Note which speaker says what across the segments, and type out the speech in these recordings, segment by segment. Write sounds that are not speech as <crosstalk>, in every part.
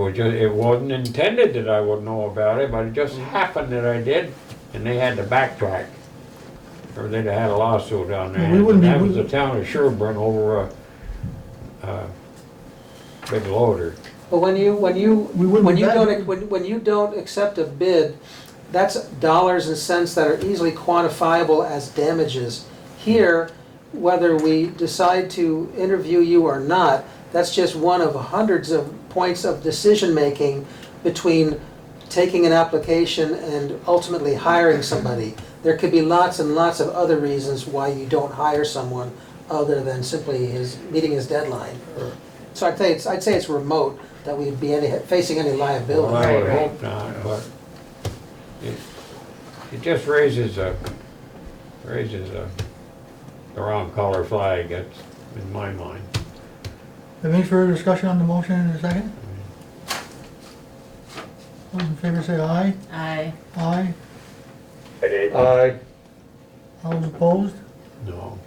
Speaker 1: was just, it wasn't intended that I would know about it, but it
Speaker 2: Mm.
Speaker 1: just happened that I did, and they had to backtrack. Or they'd have had a lawsuit down there.
Speaker 2: Well, we wouldn't be-
Speaker 1: That was the town of Sherburne over a, uh, big loader.
Speaker 3: But when you, when you,
Speaker 2: We wouldn't
Speaker 3: when you
Speaker 2: bet.
Speaker 3: don't, when, when you don't accept a bid, that's dollars and cents that are easily quantifiable as damages. Here, whether we decide to interview you or not, that's just one of hundreds of points of decision-making between taking an application and ultimately hiring somebody. There could be lots and lots of other reasons why you don't hire someone other than simply his, meeting his deadline. So I'd say, it's- I'd say it's remote that we'd be any, facing any
Speaker 1: Well,
Speaker 3: liability.
Speaker 1: I would
Speaker 4: Right, right.
Speaker 1: hope not, but it, it just raises a, raises a, the wrong color flag, that's in my mind.
Speaker 2: Any further discussion on the motion in a second? Those in favor say aye.
Speaker 4: Aye.
Speaker 2: Aye.
Speaker 5: Aye.
Speaker 2: All those opposed?
Speaker 1: No.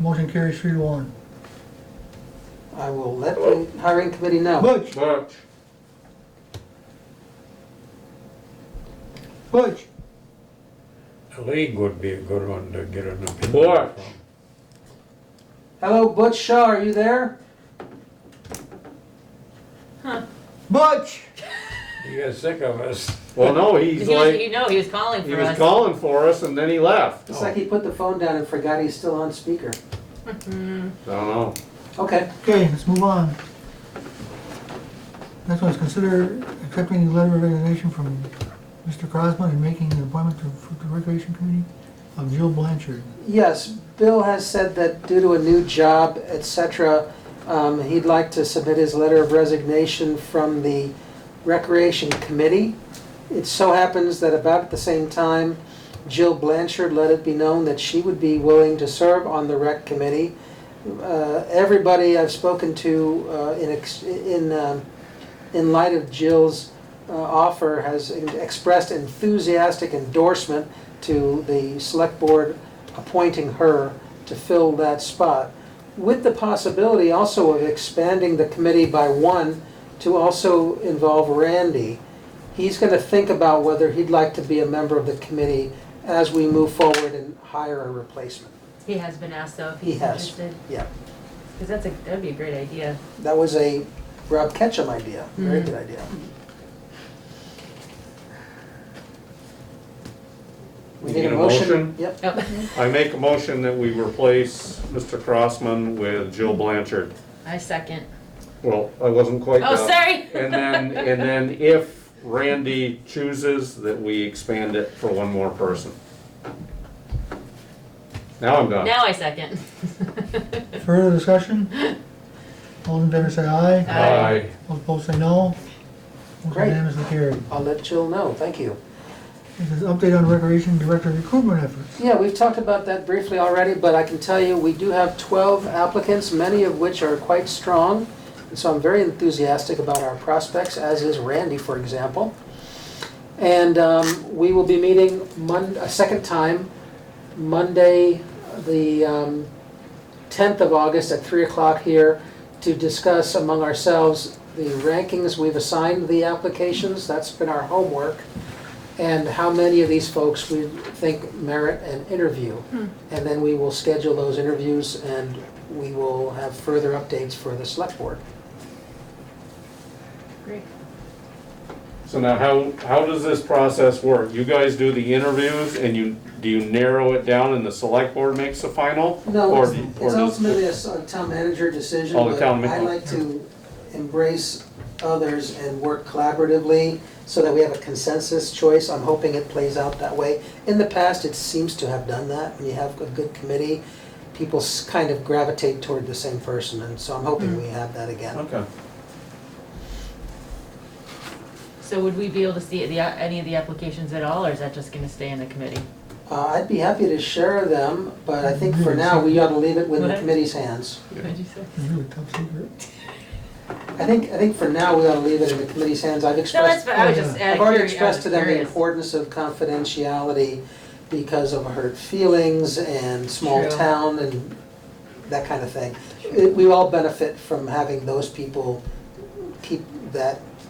Speaker 2: Motion carries three to one.
Speaker 3: I will let the hiring committee know.
Speaker 2: Butch,
Speaker 5: Butch.
Speaker 2: Butch,
Speaker 1: The league would be a good one to get an opinion
Speaker 5: What?
Speaker 1: from.
Speaker 3: Hello, Butch Shaw, are you there?
Speaker 2: Butch!
Speaker 1: He got sick of us.
Speaker 5: Well, no,
Speaker 4: Because he
Speaker 5: he's
Speaker 4: was,
Speaker 5: like,
Speaker 4: you know, he was calling
Speaker 5: he
Speaker 4: for
Speaker 5: was
Speaker 4: us.
Speaker 5: calling for us and then he left.
Speaker 3: It's like he put the phone down and forgot he's still on speaker.
Speaker 5: I don't know.
Speaker 3: Okay,
Speaker 2: Okay, let's move on. Next one is consider accepting the letter of resignation from Mr. Crosman and making an appointment to for the Recreation Committee of Jill Blanchard.
Speaker 3: yes, Bill has said that due to a new job, et cetera, um, he'd like to submit his letter of resignation from the Recreation Committee. It so happens that about at the same time, Jill Blanchard let it be known that she would be willing to serve on the Rec Committee. Uh, Everybody I've spoken to uh, in, ex- in, um, in light of Jill's uh, offer has expressed enthusiastic endorsement to the Select Board appointing her to fill that spot, with the possibility also of expanding the committee by one to also involve Randy. He's going to think about whether he'd like to be a member of the committee as we move forward and hire a replacement.
Speaker 4: He has been asked though if
Speaker 3: He
Speaker 4: he's
Speaker 3: has.
Speaker 4: interested.
Speaker 3: Yeah,
Speaker 4: Because that's a, that'd be a great idea.
Speaker 3: that was a Rob Ketchum idea, very
Speaker 4: Mhm.
Speaker 5: Hmm.
Speaker 3: good idea. We
Speaker 5: You
Speaker 3: need
Speaker 5: get
Speaker 3: a
Speaker 5: a
Speaker 3: motion?
Speaker 5: motion?
Speaker 3: Yep,
Speaker 4: Oh,
Speaker 5: I make a motion that we replace Mr. Crossman with Jill Blanchard.
Speaker 4: <laughs> I second.
Speaker 5: Well, I wasn't quite
Speaker 4: Oh,
Speaker 5: done.
Speaker 4: sorry.
Speaker 5: <laughs> And then, and then if Randy chooses, that we expand it for one more person. Now I'm done.
Speaker 4: Now I second. <laughs>
Speaker 2: Further discussion? All in favor say aye.
Speaker 5: Aye.
Speaker 2: All opposed say no. Motion
Speaker 3: Great.
Speaker 2: unanimously carried.
Speaker 3: I'll let Jill know, thank you.
Speaker 2: This is update on Recreation Director recruitment efforts.
Speaker 3: Yeah, we've talked about that briefly already, but I can tell you, we do have 12 applicants, many of which are quite strong. And so I'm very enthusiastic about our prospects, as is Randy, for example. And um, we will be meeting Mon, a second time, Monday, the um, 10th of August at 3 o'clock here to discuss among ourselves the rankings we've assigned the applications. That's been our homework and how many of these folks we think merit an interview. And then we will schedule those interviews and we will have further updates for the select board.
Speaker 4: Great.
Speaker 5: So now how, how does this process work? You guys do the interviews and you, do you narrow it down and the select board makes the final?
Speaker 3: No,
Speaker 5: Or-
Speaker 3: it's
Speaker 5: or
Speaker 3: it's
Speaker 5: does-
Speaker 3: ultimately a s- a town manager decision,
Speaker 5: Oh, the
Speaker 3: but
Speaker 5: town ma-
Speaker 3: I like to embrace others and work collaboratively so that we have a consensus choice. I'm hoping it plays out that way. In the past, it seems to have done that. When you have a good committee, people s- kind of gravitate toward the same person, and so I'm hoping we have that again.
Speaker 5: Okay.
Speaker 4: So would we be able to see the, any of the applications at all, or is that just gonna stay in the committee?
Speaker 3: Uh, I'd be happy to share them, but I think for now, we ought to leave it with the
Speaker 4: What?
Speaker 3: committee's hands.
Speaker 4: What'd you say?
Speaker 2: It's really top secret.
Speaker 3: I think, I think for now, we ought to leave it in the committee's hands. I've
Speaker 4: No, that's,
Speaker 3: expressed,
Speaker 4: fine. I was just, out
Speaker 3: I've
Speaker 4: of
Speaker 3: already
Speaker 4: curi- I
Speaker 3: expressed
Speaker 4: was
Speaker 3: to them the
Speaker 4: curious.
Speaker 3: importance of confidentiality because of hurt feelings and small
Speaker 4: True.
Speaker 3: town and that kind of thing. It- We all benefit from having those people keep that